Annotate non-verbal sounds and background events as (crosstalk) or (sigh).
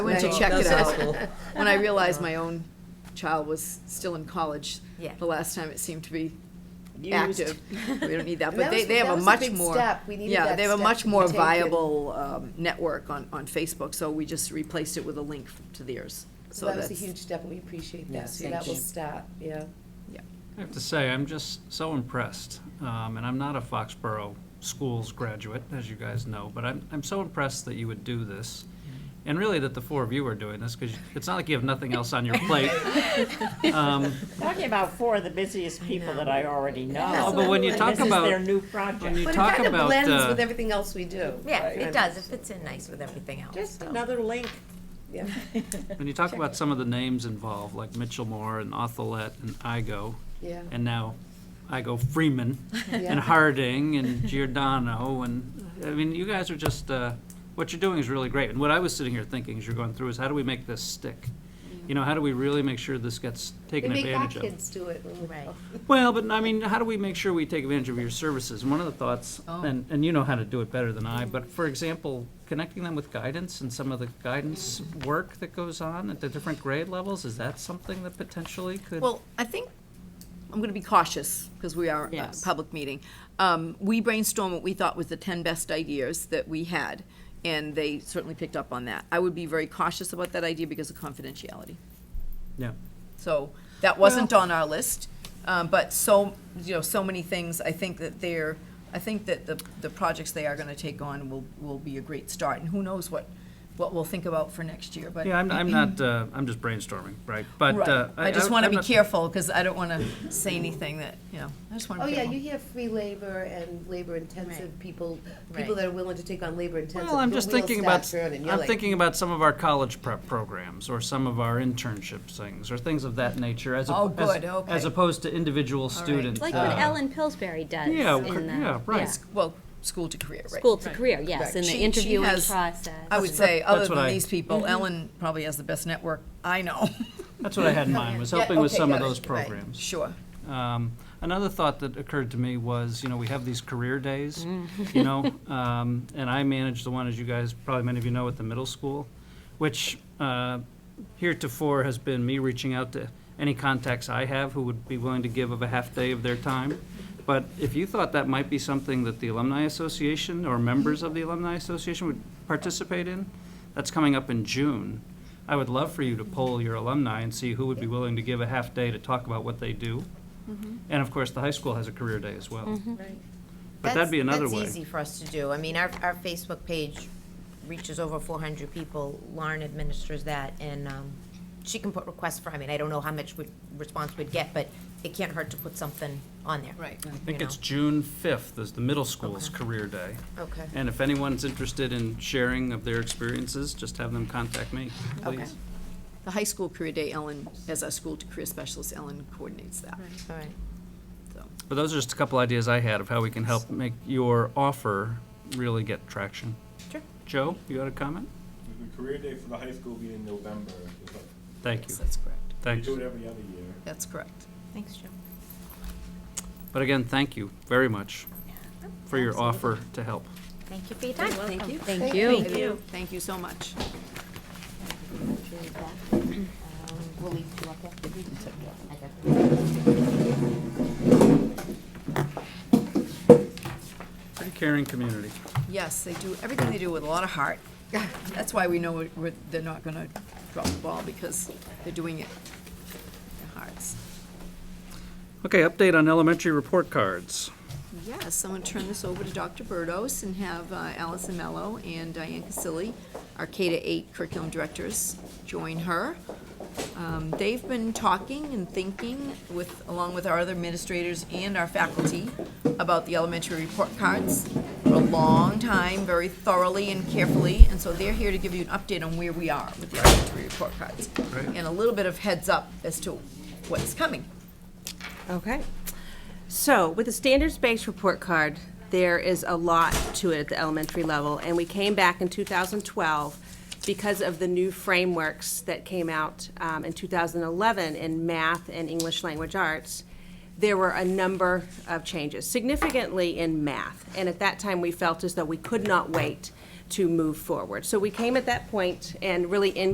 I went to Right. check it That's out (laughs) awful. when (laughs) I realized my own child was still in college. Uh. Yeah. The last time it seemed to be Used. active. We don't need (laughs) that, And but that they, was- they have that a was a much big more. step. We needed Yeah, that they have a step much to more take it. viable, um, network on, on Facebook, so we just replaced it with a link to theirs. So So that was that's, a huge step, and we appreciate that, Yes, so that will thank you. stop, (laughs) yeah. I have to say, I'm just so impressed, um, and I'm not a Foxborough Schools graduate, as you guys know, but I'm, I'm so impressed that you would do this. And really that the four of you are doing this, because it's not like you have nothing else on your plate. Um, Talking about four of the busiest people that I already know. Oh, but when you and talk about- This is their when new you project. But it talk kind of about, blends uh, with everything else we do. Yeah, right? it does, it fits in nice with everything else. Just so. another link. Yeah. When you talk about some of the names involved, like Mitchell Moore and Othelet and Igo, Yeah. and now Igo (laughs) Freeman Yeah. and Harding and Giordano and, I mean, you guys are just, uh, what you're doing is really great. And what I was sitting here thinking as you're going through is how do we make this stick? You know, how do we really make sure this gets Mm-hmm. They taken make our advantage of? kids do it. when we Right. go. Well, but I mean, how do we make sure we take advantage of your services? And one of the thoughts, and, and you know how to do it better than I, but for example, connecting them with guidance and some of the guidance work that goes on at the different grade levels, is that something that potentially could? well, I think, I'm gonna be cautious, because we are a Yes. public meeting. Um, we brainstormed what we thought was the ten best ideas that we had, and they certainly picked up on that. I would be very cautious about that idea because of confidentiality. Yeah. So that wasn't on our list, um, but so, you know, so many things, I think that they're, I think that the, the projects they are gonna take on will, will be a great start, and who knows what, what we'll think about for next year, but. Yeah, I'm, I'm not, uh, I'm just brainstorming, right? But, Right. uh. I just wanna I'm be not- careful, because I don't wanna say anything that, you know, I just wanna Oh, be yeah, careful. you hear free labor and labor-intensive people, people Right. that are willing to take on labor-intensive. Well, I'm your just wheels thinking start about, turning. You're I'm like, thinking about some of our college prep programs, or some of our internship things, or things of that nature, as, op- Oh, as- good, okay. as opposed to individual student. Like what uh, Ellen Pillsbury does in Yeah, the. yeah, right. yeah, Well, school to career, right? School to career, yes, Right. in the She- she interviewing has- process. Mm-hmm. I would say, other that's what than I- these people, Ellen probably has the best network I know, That's what I had in mind, (laughs) was Yeah, helping with okay, some of got it, those right. programs. sure. Um, another thought that occurred to me was, you know, we have these career days, you know, um, and I manage the one, as you guys, probably many of you know, at the middle school, which uh, heretofore has been me reaching out to any contacts I have who would be willing to give of a half day of their time. But if you thought that might be something that the Alumni Association or members of the Alumni Association would participate in, that's coming up in June. I would love for you to poll your alumni and see who would be willing to give a half day to talk about what they do. And of course, the high school has a career day as well. Mm-hmm. But that'd be That's- another way. That's easy for us to do. I mean, our, our Facebook page reaches over four hundred people. Lauren administers that, and, um, she can put requests for, I mean, I don't know how much we- response we'd get, but it can't hurt to put something on there. Right. I think you it's know. June fifth is the middle school's Okay. career day. Okay. And if anyone's interested in sharing of their experiences, just have them contact me, Okay. please. The high school career day, Ellen, as our school to career specialist, Ellen coordinates that. All right. But those are just a couple ideas I had of how we can help make your offer really get traction. Sure. Joe, you got a comment? The career day for the high school will be in November. Thank you, That's correct. We thanks. do it every other year. That's correct. Thanks, Joe. But again, thank you very much for your offer to help. Thank you for your time. Thank you. Thank you. Thank you. Thank you so much. We'll leave you up there. I got it. Pretty caring community. Yes, they do, everything they do with a lot of heart. (laughs) That's why we know we're- we're, they're not gonna drop the ball, because they're doing it with their hearts. Okay, update on elementary report cards. Yes, so I'm gonna turn this over to Dr. Burdos and have uh, Allison Mello and Diane Casilli, our K to eight curriculum directors, join her. Um, They've been talking and thinking with, along with our other administrators and our faculty about the elementary report cards for a long time, very thoroughly and carefully, and so they're here to give you an update on where we are with the elementary report cards. And a little bit of heads up as to what's coming. Okay. So with the standards-based report card, there is a lot to it at the elementary level, and we came back in 2012 because of the new frameworks that came out um, in 2011 in math and English language arts. There were a number of changes, significantly in math, and at that time, we felt as though we could not wait to move forward. So we came at that point and really in